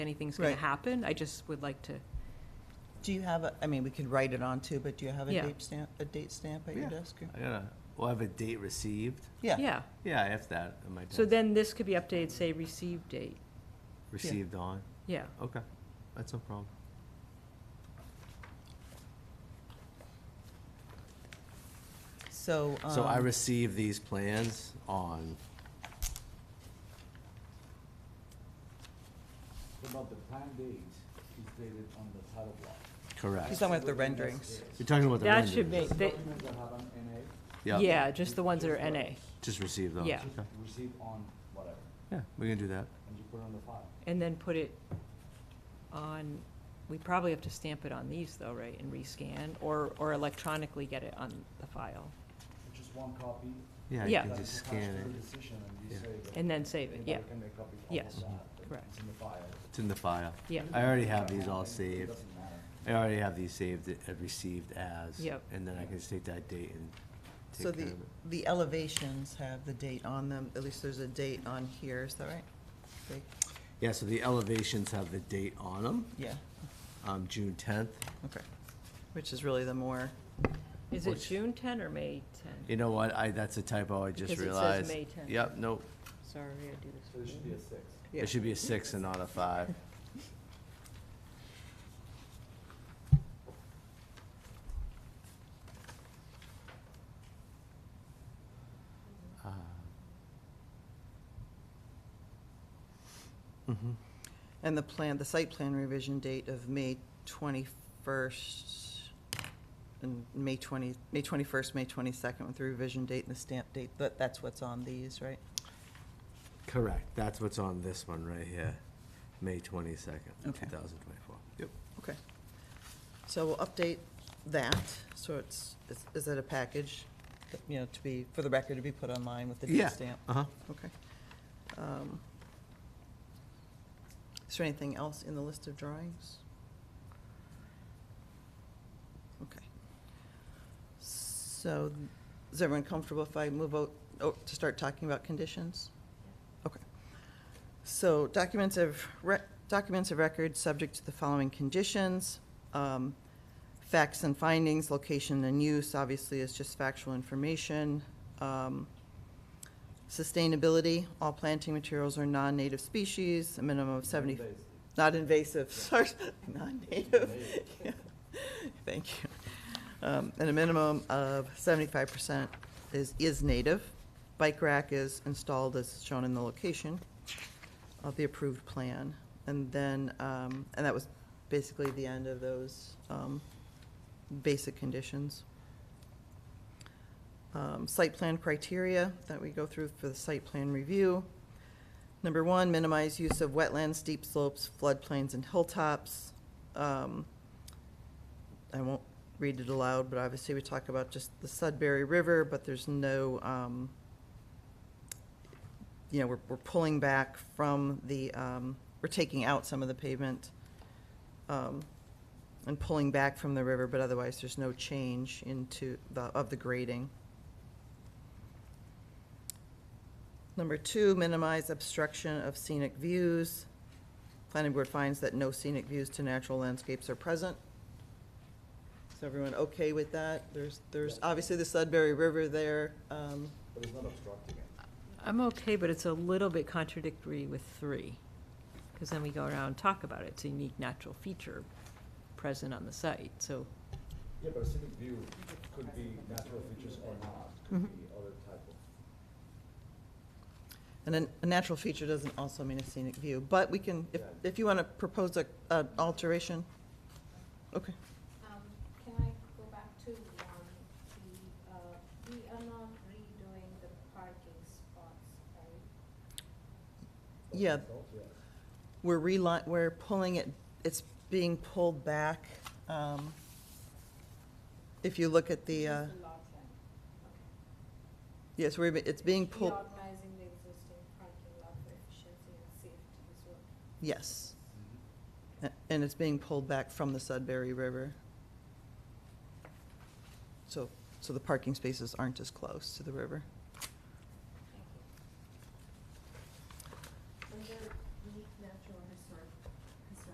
anything's going Right. to happen. I just would like to, Do you have, a? I mean, we could write it on too, but do you have a Yeah. date stamp, a date stamp at your Yeah. desk? or- I gotta, we'll have a date received. Yeah, yeah. Yeah, I have that in my So desk. then this could be updated, say, receive date. Received on, Yeah. okay, that's no problem. so. So I um, received these plans on, About the planned dates is dated on the title block. He's correct. talking about the renderings. You're talking about the That should renderings. be- They- Documents that have an NA Yep, Yeah, just the ones that are NA. Just received those, Yeah. okay. received on whatever, Yeah, we can do that. and you put it on the file. And then put it on, we probably have to stamp it on these though, right, and rescan, or, or electronically get it on the file, Just one copy. Yeah, you Yeah. can that just is attached scan to it. the decision, and you Yeah. say that and then save it, yeah, anybody can make copies of Yes. all of that, Correct. It's in the file. It's in the file. yeah, I already have these all It saved. doesn't matter. I already have these saved, uh, received as. Yep. And then I can just take that date and So take care the, of it. the elevations have the date on them, at least there's a date on here, is that right? They- Yeah, so the elevations have the date on them, Yeah, um, June tenth. okay, which is really the more, Is it Which- June ten or May ten? You know what, I, that's a typo, I Because it just says realized. May 10th. Yep, nope, Sorry, I do So it this. should be a six. Yeah. it should be a six and not a five. Mm-hmm. and the plan, the site plan revision date of May twenty-first and May twenty, May twenty-first, May twenty-second with the revision date and the stamp date, that, that's what's on these, right? Correct, that's what's on this one right here, May twenty-second, two Okay. thousand twenty-four. Yep. Okay. So we'll update that, so it's, is- is it a package, that, you know, to be, for the record, to be put online with the Yeah, date stamp? uh-huh. Okay. Um, Is there anything else in the list of drawings? Okay. So, is everyone comfortable if I move out, oh, to start talking about conditions? Okay. So documents of, rec- documents of record subject to the following conditions. Um, Facts and findings, location and use, obviously, is just factual information. Um, Sustainability, all planting materials are non-native species, a minimum of seventy, Seven days. not invasive, sorry, non-native. Yeah. Thank you. Um, And a minimum of seventy-five percent is, is native. Bike rack is installed as shown in the location of the approved plan. And then, um, and that was basically the end of those um, basic conditions. Um, Site plan criteria that we go through for the site plan review. Number one, minimize use of wetlands, steep slopes, floodplains, and hilltops. Um, I won't read it aloud, but obviously we talk about just the Sudbury River, but there's no, um, you know, we're, we're pulling back from the, um, we're taking out some of the pavement, um, and pulling back from the river, but otherwise there's no change into the, of the grading. Number two, minimize obstruction of scenic views. Planning board finds that no scenic views to natural landscapes are present. Is everyone okay with that? There's, there's obviously the Sudbury River there, um, But it's not obstructing it. I'm okay, but it's a little bit contradictory with three, because then we go around and talk about it, it's a unique natural feature present on the site, so, Yeah, but a scenic view could be natural features or not, could be other type of. And a- a natural feature doesn't also mean a scenic view, but we can, if, if you want to propose a, an alteration, okay. Um, Can I go back to one, the, uh, we are not redoing the parking spots, right? Yeah, Yeah. we're reli, we're pulling it, it's being pulled back. um, If you look at the, uh, Just the lot line, okay. yes, we're, it's being pulled, Reorganizing the existing parking lot for efficiency and safety is what. yes. Mm-hmm. A- And it's being pulled back from the Sudbury River. So, so the parking spaces aren't as close to the river.